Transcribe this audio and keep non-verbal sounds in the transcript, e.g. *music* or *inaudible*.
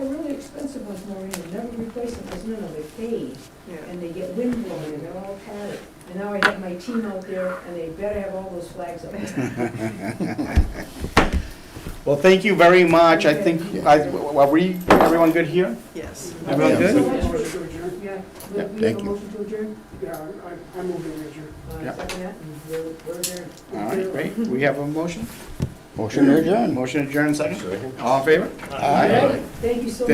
person goes, no, no, they're paid, Yeah. and they get wind blowing, and they're all padded. And now I have my team out there, and they better have all those flags *laughs* up. Well, thank you very much. I think, I- are we, everyone good here? Yes. Everyone Thank you good? so much. Motion to adjourn? Yeah, we Yeah, we have thank a you. motion to adjourn? Yeah, I, I move to adjourn. Uh, Yeah. Second that, we're, we're adjourned. All right, great. We have a motion? Motion to adjourn. Motion adjourned, second? All in favor? Aye. Thank you so much.